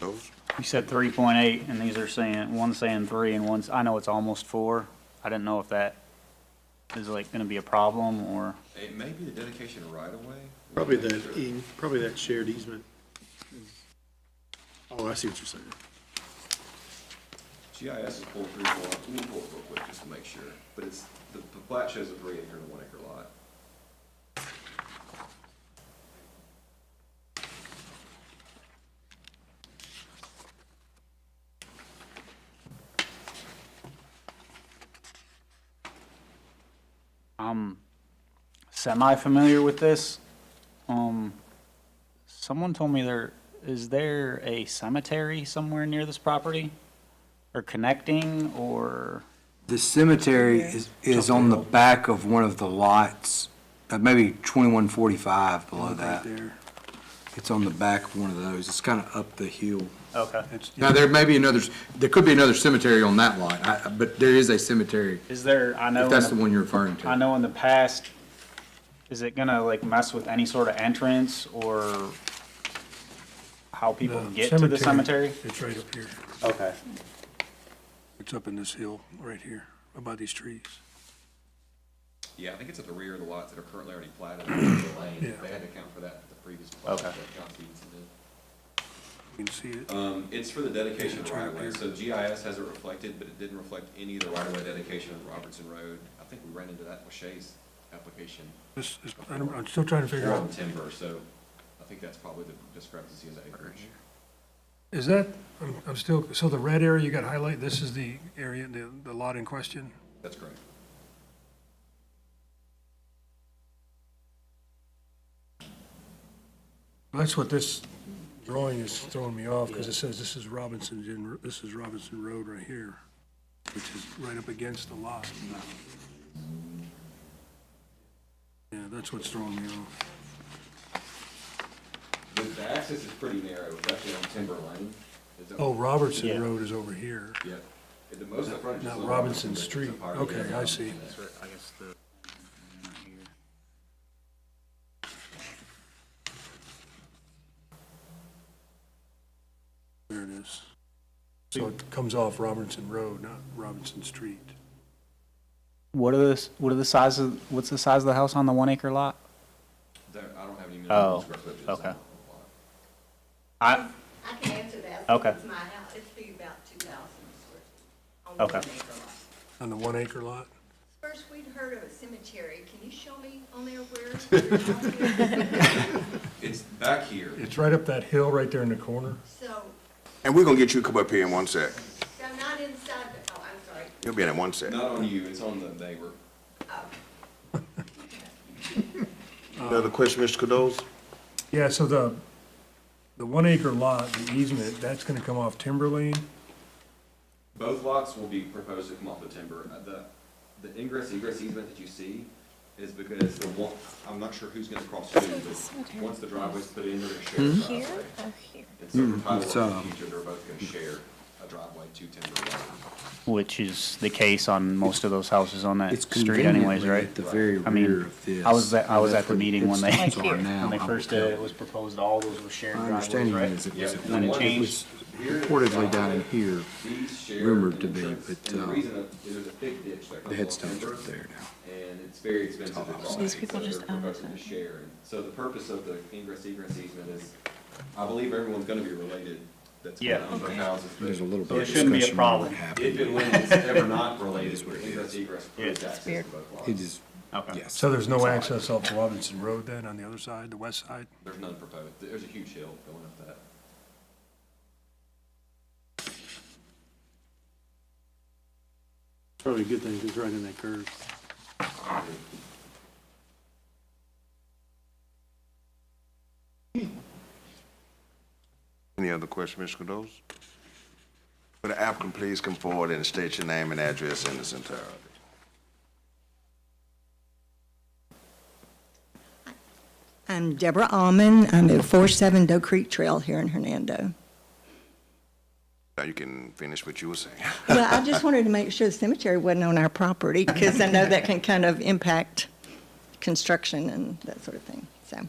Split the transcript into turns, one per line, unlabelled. Those?
You said three point eight, and these are saying, one's saying three and one's, I know it's almost four. I didn't know if that is like gonna be a problem or,
It may be the dedication of right of way.
Probably that, e- probably that shared easement. Oh, I see what you're saying.
GIS is pulled through, for- we can pull it real quick just to make sure, but it's, the the plat shows a three acre and a one acre lot.
I'm semi-familiar with this. Um, someone told me there, is there a cemetery somewhere near this property? Or connecting, or,
The cemetery is, is on the back of one of the lots, uh, maybe twenty-one forty-five below that. It's on the back of one of those. It's kind of up the hill.
okay.
Now, there may be another, there could be another cemetery on that lot, I, I- but there is a cemetery,
Is there, I know.
if
in
that's
the-
the one you're referring
I
to.
know in the past, is it gonna like mess with any sort of entrance or how people get to the cemetery?
It's right up here.
Okay.
It's up in this hill right here, by these trees.
Yeah, I think it's at the rear of the lots that are currently already platted, the lane,
Yeah.
they had to account for that at the previous plat.
Okay.
that John Stevenson did.
You can see it.
Um, it's for the dedication of
It's right
right of way,
here.
so GIS has it reflected, but it didn't reflect any of the right of way dedication on Robertson Road. I think we ran into that with Shay's application,
This is, I don't- I'm still trying to figure
or on
out,
timber, so I think that's probably the discrepancy is acreage.
is that, I'm, I'm still, so the red area you got highlighted, this is the area, the, the lot in question?
That's correct.
That's what this drawing is throwing me off, because it says this is Robinson, Gen- this is Robinson Road right here, which is right up against the lot. Yeah, that's what's throwing me off.
The, the access is pretty narrow, it's actually on timber lane. Is that-
Oh,
Yeah.
Robertson Road is over here.
Yeah. And The most of the frontage is
Not
on
Robinson
but it's
Street,
a part of the
okay, I
other.
see.
I guess the.
There it is. So it comes off Robinson Road, not Robinson Street.
What are the, what are the size of, what's the size of the house on the one acre lot?
There, I don't have any.
Oh,
square footage on
okay.
the lot.
I,
I can answer that.
Okay.
It's my house, it'd be about two thousand square feet. on one
Okay.
acre lot.
On the one acre lot?
First, we'd heard of a cemetery, can you show me on there where?
It's back here.
It's right up that hill right there in the corner.
So,
And we're gonna get you to come up here in one sec.
so not inside, the oh, I'm sorry,
You'll be in in one sec.
Not on you, it's on the neighbor.
Another question, Mr. Cados?
Yeah, so the, the one acre lot, the easement, that's gonna come off timber lane.
Both lots will be proposed to come off the timber. Uh, The, the ingress egress easement that you see is because the one, I'm not sure who's gonna cross who, but once the driveway's put in, they're gonna share a driveway. And so for
Hmm? it's,
title in
um,
the future, they're both gonna share a driveway to timber. lot.
which is the case on most of those houses on that
It's
street anyways,
conveniently
right?
at the very
I mean,
rear of this.
I was, at- I was at the
That's
meeting when
where
they,
the pits are now,
when they
I will
first did it,
tell
it was proposed all those were shared
My
driveways,
understanding
right?
is it
Yeah,
was,
and
when
it
it
changed.
was reportedly down in here,
These share
rumored
an
to be,
entrance,
but,
and the
uh,
reason that there's a thick ditch that
the
comes off
headstones are
timber.
up there now.
and it's very expensive to buy.
These people
so
just
they're
own
proposing
it.
to share. And So the purpose of the ingress egress easement is, I believe everyone's gonna be related that's gonna
Yeah.
own their houses. but
There's a little
So it
bit of
shouldn't be a
discussion on
problem.
what
If and
happened.
when it's ever not related,
That's what it
ingress
is.
egress
Yeah.
provides access to
weird.
both
It
lots.
is,
Okay.
yes.
So there's no access off Robinson Road then, on the other side, the west side?
There's none proposed. There's a huge hill going up that.
Probably a good thing, 'cause it's right in that curve.
Any other question, Mr. Cados? Would the applicant please come forward and state your name and address in its entirety?
I'm Deborah Alman, I'm at four seven Doe Creek Trail here in Hernando.
Now you can finish what you were saying.
Well, I just wanted to make sure the cemetery wasn't on our property, because I know that can kind of impact construction and that sort of thing, so.